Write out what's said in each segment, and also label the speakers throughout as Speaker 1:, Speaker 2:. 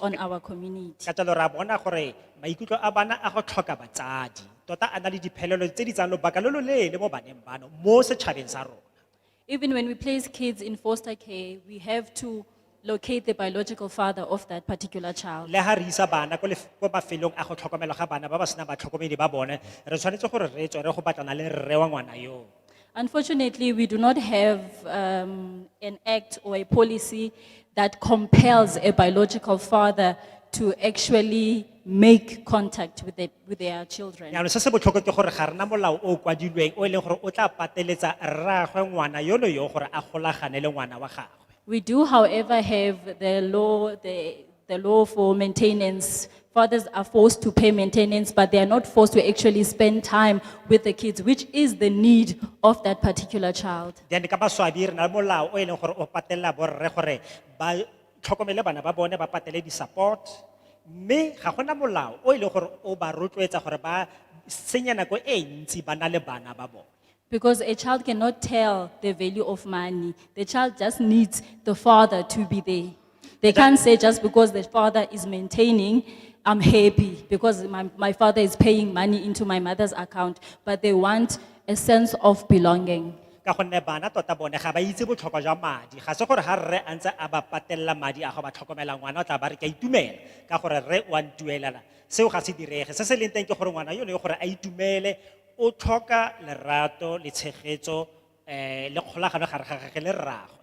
Speaker 1: on our community.
Speaker 2: Ka jalo ra bona gore maikutlo a bana a go tlhoka batsadi. Tota a na le diphelelo tse di tsayang lobaka lo lo leele mo baneng bano, mo setšhabeng sa rona.
Speaker 1: Even when we place kids in foster care, we have to locate the biological father of that particular child.
Speaker 2: Le ha re isa bana ko lef- ko mafelong a go tlhokomelwa ga bana ba ba senang batlhokomedi ba bone, re tshwanetse gore re tswe re go batlana le rre wa ngwana yoo.
Speaker 1: Unfortunately, we do not have um, an act or a policy that compels a biological father to actually make contact with, the, with their children.
Speaker 2: Yanong se se botlhokwa ke gore ga rena molao o o kwadilweng o e leng gore o tla pateletsa rraagwe ngwana yono yo gore a golagane le ngwana wa gagwe.
Speaker 1: We do, however, have the law, the, the law for maintenance. Fathers are forced to pay maintenance, but they are not forced to actually spend time with the kids, which is the need of that particular child.
Speaker 2: Then ka baswabi re na le molao o e leng gore o patelela borre gore ba tlhokomele bana ba bone ba patele di-support. Mme ga gona molao o e leng gore o ba rotloetsa gore ba senya nako e ntsi ba na le bana ba bone.
Speaker 1: Because a child cannot tell the value of money. The child just needs the father to be there. They can't say just because the father is maintaining, I'm happy because my, my father is paying money into my mother's account, but they want a sense of belonging.
Speaker 2: Ka gonne bana tota bone ga ba itse botlhokwa jwa madi. Ga se gore ha rre a ntse a ba patelela madi a go ba tlhokomela ngwana o tla ba re ke a itumela ka gore rre o a ntuelela. Seo ga se direge. Se se leng teng ke gore ngwana yo le gore a itumele o tlhoka lerato le tshegetso eh le kgolagano gare ga gagwe le rraagwe.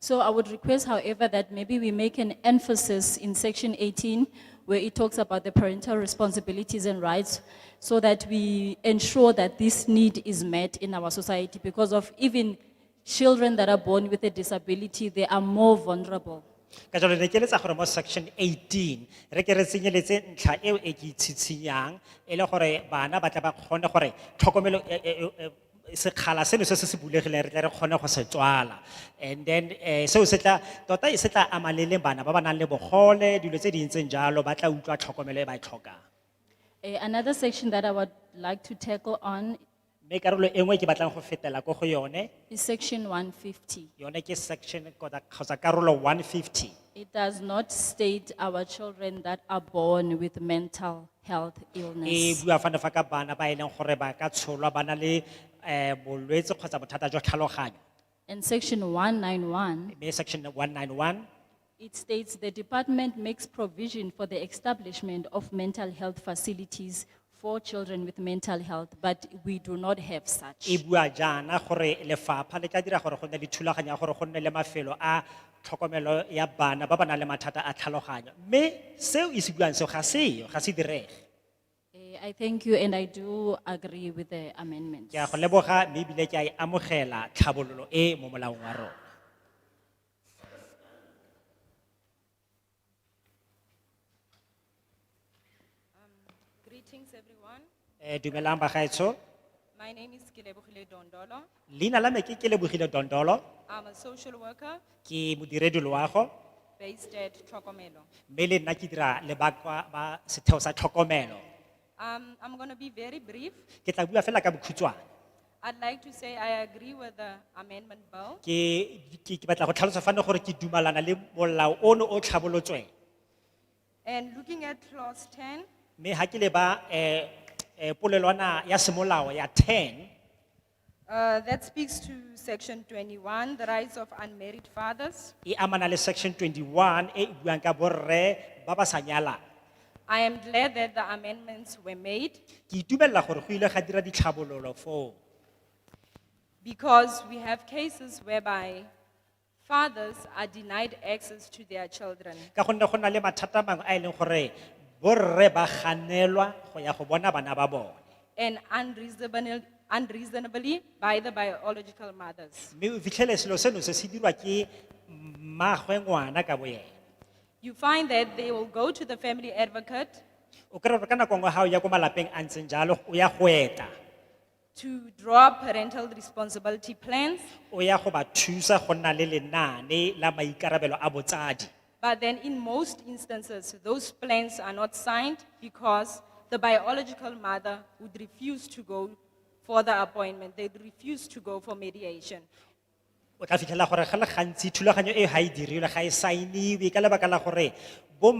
Speaker 1: So I would request, however, that maybe we make an emphasis in section 18 where it talks about the parental responsibilities and rights so that we ensure that this need is met in our society because of even children that are born with a disability, they are more vulnerable.
Speaker 2: ka jalo ne ke eletsa gore mo section eighteen re ke re tsenyeletse ntlha eo e ke itshitshinyang e le gore bana ba tla ba kgone gore tlhokomelo e- e- e- e- sekgala seno se se se bulegileng re tle re kgone go se tswala and then eh, seo se tla tota e se tla ama le le bana ba ba nang le bogole dilo tse di ntseng jalo ba tla utlwa tlhokomelo e ba e tlhokang
Speaker 1: Eh, Another section that I would like to tackle on
Speaker 2: mme karolo e nngwe ke batlang go fetela ko go yone
Speaker 1: is section 150.
Speaker 2: yone ke section kota- kgotsa karolo one fifty
Speaker 1: It does not state our children that are born with mental health illness.
Speaker 2: e bua fana fa ka bana ba e leng gore ba ka tsholwa ba na le eh bolwetse kgotsa bothata jwa tlhaloganyo
Speaker 1: And section 191,
Speaker 2: mme section one nine one
Speaker 1: it states the department makes provision for the establishment of mental health facilities for children with mental health, but we do not have
Speaker 2: e
Speaker 1: such.
Speaker 2: bua jaana gore lefapha le tla dira gore go nne le thulaganyo ya gore go nne le mafelo a tlhokomelo ya bana ba ba nang le mathata a tlhaloganyo mme seo e se buang seo ga seyo ga se direge
Speaker 1: Eh, I thank you and I do agree with the amendments.
Speaker 2: ke a go leboga mme ebile ke a e amogela tlhabololo e mo molaong wa rona
Speaker 3: Greetings, everyone.
Speaker 2: Eh, dumelang bagaetsho
Speaker 3: My name is Kilebuchile Dondolo.
Speaker 2: leina la me ke ke lebogile dondolo
Speaker 3: I'm a social worker
Speaker 2: ke modiredi loago
Speaker 3: based at Trokomelo.
Speaker 2: mme le nna ke dira le bakwa ba setheo sa tlhokomelo
Speaker 3: Um, I'm going to be very brief.
Speaker 2: ke tla bua fela ka bokhutshwane
Speaker 3: I'd like to say I agree with the amendment bill.
Speaker 2: ke ke ke batla go tlhalosa fane gore ke dumalana le molao ono o tlhabolotsweng
Speaker 3: And looking at clause ten,
Speaker 2: mme ha ke leba eh eh polelwana ya semolao ya 10
Speaker 3: uh, that speaks to section twenty-one, the rights of unmarried fathers.
Speaker 2: e amana le section 21 e e buang ka borre ba ba sa nyalang
Speaker 3: I am glad that the amendments were made
Speaker 2: ke itumella gore go ile ga dira ditlhabololo foo
Speaker 3: because we have cases whereby fathers are denied access to their children.
Speaker 2: ka gonne go na le mathata a mangwe a e leng gore borre ba ganelwa go ya go bona bana ba bone
Speaker 3: and unreasonably, unreasonably by the biological mothers.
Speaker 2: mme o fitlhele selo seno se se dirwa ke mmagwe ngwana ka bo ena
Speaker 3: You find that they will go to the family advocate
Speaker 2: o kry-e gore ka nako nngwe ga o ya ko malapeng a ntseng jalo o ya go eta
Speaker 3: to draw up parental responsibility plans,
Speaker 2: o ya go ba thusa go nna le lenaane la maikarabelo a botsadi
Speaker 3: but then in most instances, those plans are not signed because the biological mother would refuse to go for the appointment. They'd refuse to go for mediation.
Speaker 2: o tla fitlhela gore ga le gantsi thulaganyo e ga e dirilwe ga e saeniwe ka lebaka la gore bo